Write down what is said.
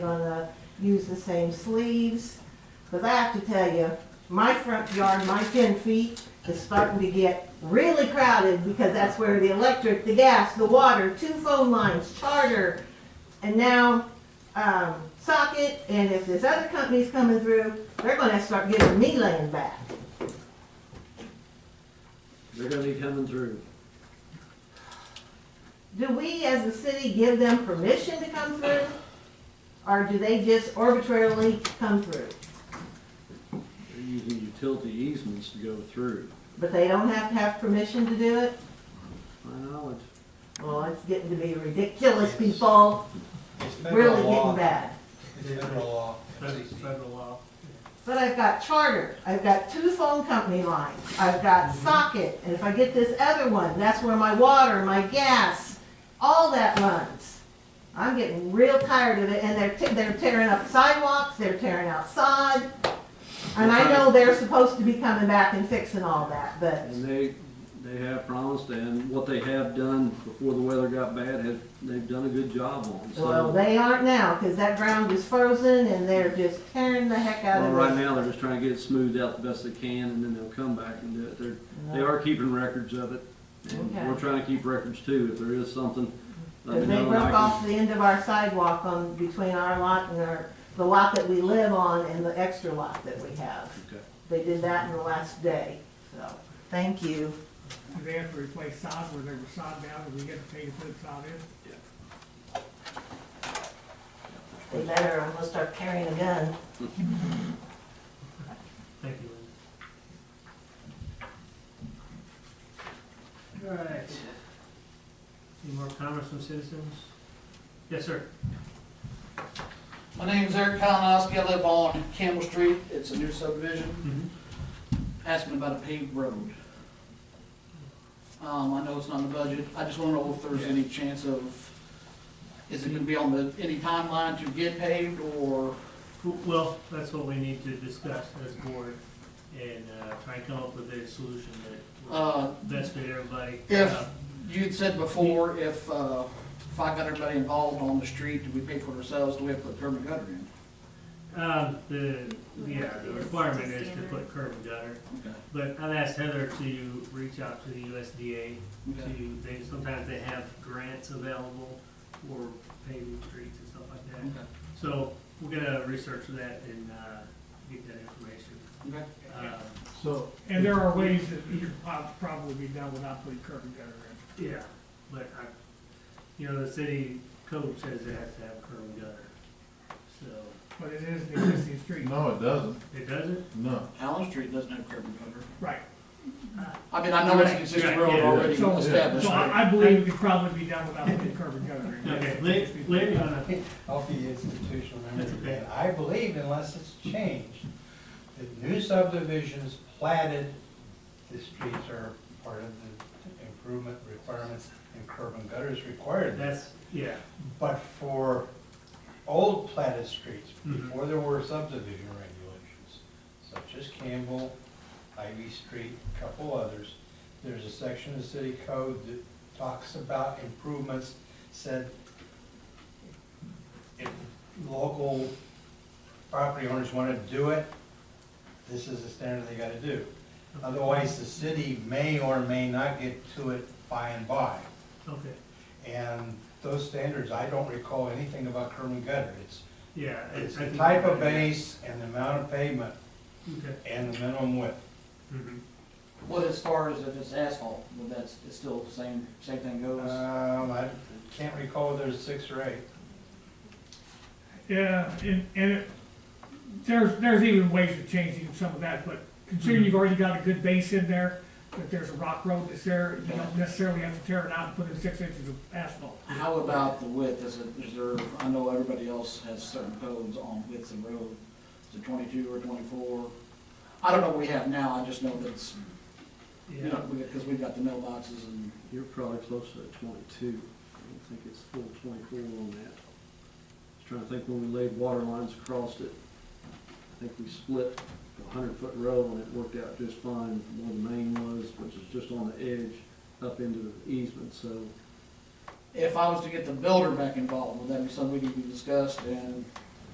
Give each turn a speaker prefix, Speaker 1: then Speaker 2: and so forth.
Speaker 1: gonna use the same sleeves. Cause I have to tell you, my front yard, my ten feet is starting to get really crowded because that's where the electric, the gas, the water, two phone lines, charter, and now, um, socket, and if this other company's coming through, they're gonna start giving me land back.
Speaker 2: They're gonna be coming through.
Speaker 1: Do we, as a city, give them permission to come through? Or do they just arbitrarily come through?
Speaker 2: They're using utility easements to go through.
Speaker 1: But they don't have to have permission to do it?
Speaker 2: My knowledge.
Speaker 1: Well, Oh, it's getting to be ridiculous, people, really getting bad.
Speaker 3: It's federal law.
Speaker 4: Federal federal law.
Speaker 1: But I've got Charter, I've got two phone company lines, I've got Socket, and if I get this other one, that's where my water, my gas, all that runs. I'm getting real tired of it, and they're, te- they're tearing up sidewalks, they're tearing out sod. And I know they're supposed to be coming back and fixing all that, but
Speaker 2: And they, they have promised, and what they have done before the weather got bad, has, they've done a good job on.
Speaker 1: Well,
Speaker 2: So,
Speaker 1: they aren't now, because that ground is frozen and they're just tearing the heck out
Speaker 2: well, right
Speaker 1: of it.
Speaker 2: now, they're just trying to get it smoothed out the best they can, and then they'll come back and do it. They're, they are keeping records of it. And
Speaker 1: Okay.
Speaker 2: we're trying to keep records too, if there is something. let me
Speaker 1: Because they
Speaker 2: know and I
Speaker 1: broke
Speaker 2: can-
Speaker 1: off the end of our sidewalk on, between our lot and our, the lot that we live on and the extra lot that we have.
Speaker 2: Okay.
Speaker 1: They did that in the last day, so, thank you.
Speaker 4: Do they have to replace sod where they were sod down, do we get to pay to put sod in?
Speaker 1: They better, I'm gonna start carrying a gun.
Speaker 4: Thank you, Lynn. All right. Any more comments from citizens? Yes, sir.
Speaker 5: My name's Eric Kalinowski, I live on Campbell Street, it's a new subdivision,
Speaker 4: Mm-hmm.
Speaker 5: asking about a paved road. Um, I know it's not in the budget, I just wanna know if there's any chance of, is it gonna be on the, any timeline to get paved, or,
Speaker 4: Well, that's what we need to discuss as board and uh, try and come up with a solution that will
Speaker 5: uh,
Speaker 4: best fit everybody.
Speaker 5: If-
Speaker 4: Uh,
Speaker 5: you'd said before, if, uh, if I got everybody involved on the street, do we pay for it ourselves, do we have to put curb and gutter in?
Speaker 4: Um, the, yeah, the requirement is to put curb and gutter,
Speaker 5: Okay.
Speaker 4: but I've asked Heather to reach out to the USDA
Speaker 5: Okay.
Speaker 4: to, they, sometimes they have grants available for paving streets and stuff like that.
Speaker 5: Okay.
Speaker 4: So we're gonna research that and, uh, get that information.
Speaker 5: Okay.
Speaker 4: Uh,
Speaker 2: So,
Speaker 6: And there are ways that you could prob- probably be done without putting curb and gutter in.
Speaker 4: yeah, but I, you know, the city code says it has to have curb and gutter, so
Speaker 6: But it is the existing street.
Speaker 7: No, oh, it doesn't,
Speaker 4: it doesn't.
Speaker 7: no.
Speaker 5: Allen Street doesn't have curb and gutter.
Speaker 6: Right.
Speaker 5: I mean, I know it's a
Speaker 4: Right,
Speaker 5: consistent
Speaker 4: yeah,
Speaker 5: road
Speaker 4: yeah.
Speaker 5: already
Speaker 6: So-
Speaker 5: established.
Speaker 6: So I, I believe it could probably be done without putting curb and gutter in.
Speaker 4: Okay, uh, Larry, Larry, on a,
Speaker 3: I'll be institutional
Speaker 4: That's
Speaker 3: memory.
Speaker 4: okay.
Speaker 3: again. I believe unless it's changed, that new subdivisions platted, the streets are part of the improvement requirements and curb and gutter is required.
Speaker 4: that's, yeah,
Speaker 3: But for old platted streets,
Speaker 4: Mhm.
Speaker 3: before there were subdivision regulations, such as Campbell, Ivy Street, a couple others, there's a section of the city code that talks about improvements, said if local property owners want to do it, this is the standard they gotta do. Otherwise, the city may or may not get to it by and by.
Speaker 4: okay,
Speaker 3: And those standards, I don't recall anything about curb and gutter. It's,
Speaker 4: yeah. I-
Speaker 3: it's
Speaker 4: I
Speaker 3: the
Speaker 4: think-
Speaker 3: type of base and the amount of pavement
Speaker 4: Okay.
Speaker 3: and the minimum width.
Speaker 4: mhm.
Speaker 5: What as far as if it's asphalt, would that's, it's still the same, same thing goes?
Speaker 3: Um, I can't recall whether it's six or eight.
Speaker 6: Yeah, and, and it, there's, there's even ways of changing some of that, but considering you've already got a good base in there, that there's a rock road that's there, you don't necessarily have to tear it out and put in six inches of asphalt.
Speaker 5: How about the width, is it, is there, I know everybody else has certain codes on widths of road, is it twenty-two or twenty-four? I don't know what we have now, I just know that it's, you
Speaker 4: Yeah,
Speaker 5: know, because we've got the mailboxes and,
Speaker 2: you're probably close to twenty-two. I don't think it's full twenty-four on that. I was trying to think when we laid water lines across it. I think we split a hundred-foot row and it worked out just fine. Where the main was, which is just on the edge, up into the easement, so.
Speaker 5: if I was to get the builder back involved, would that be something we could be discussed and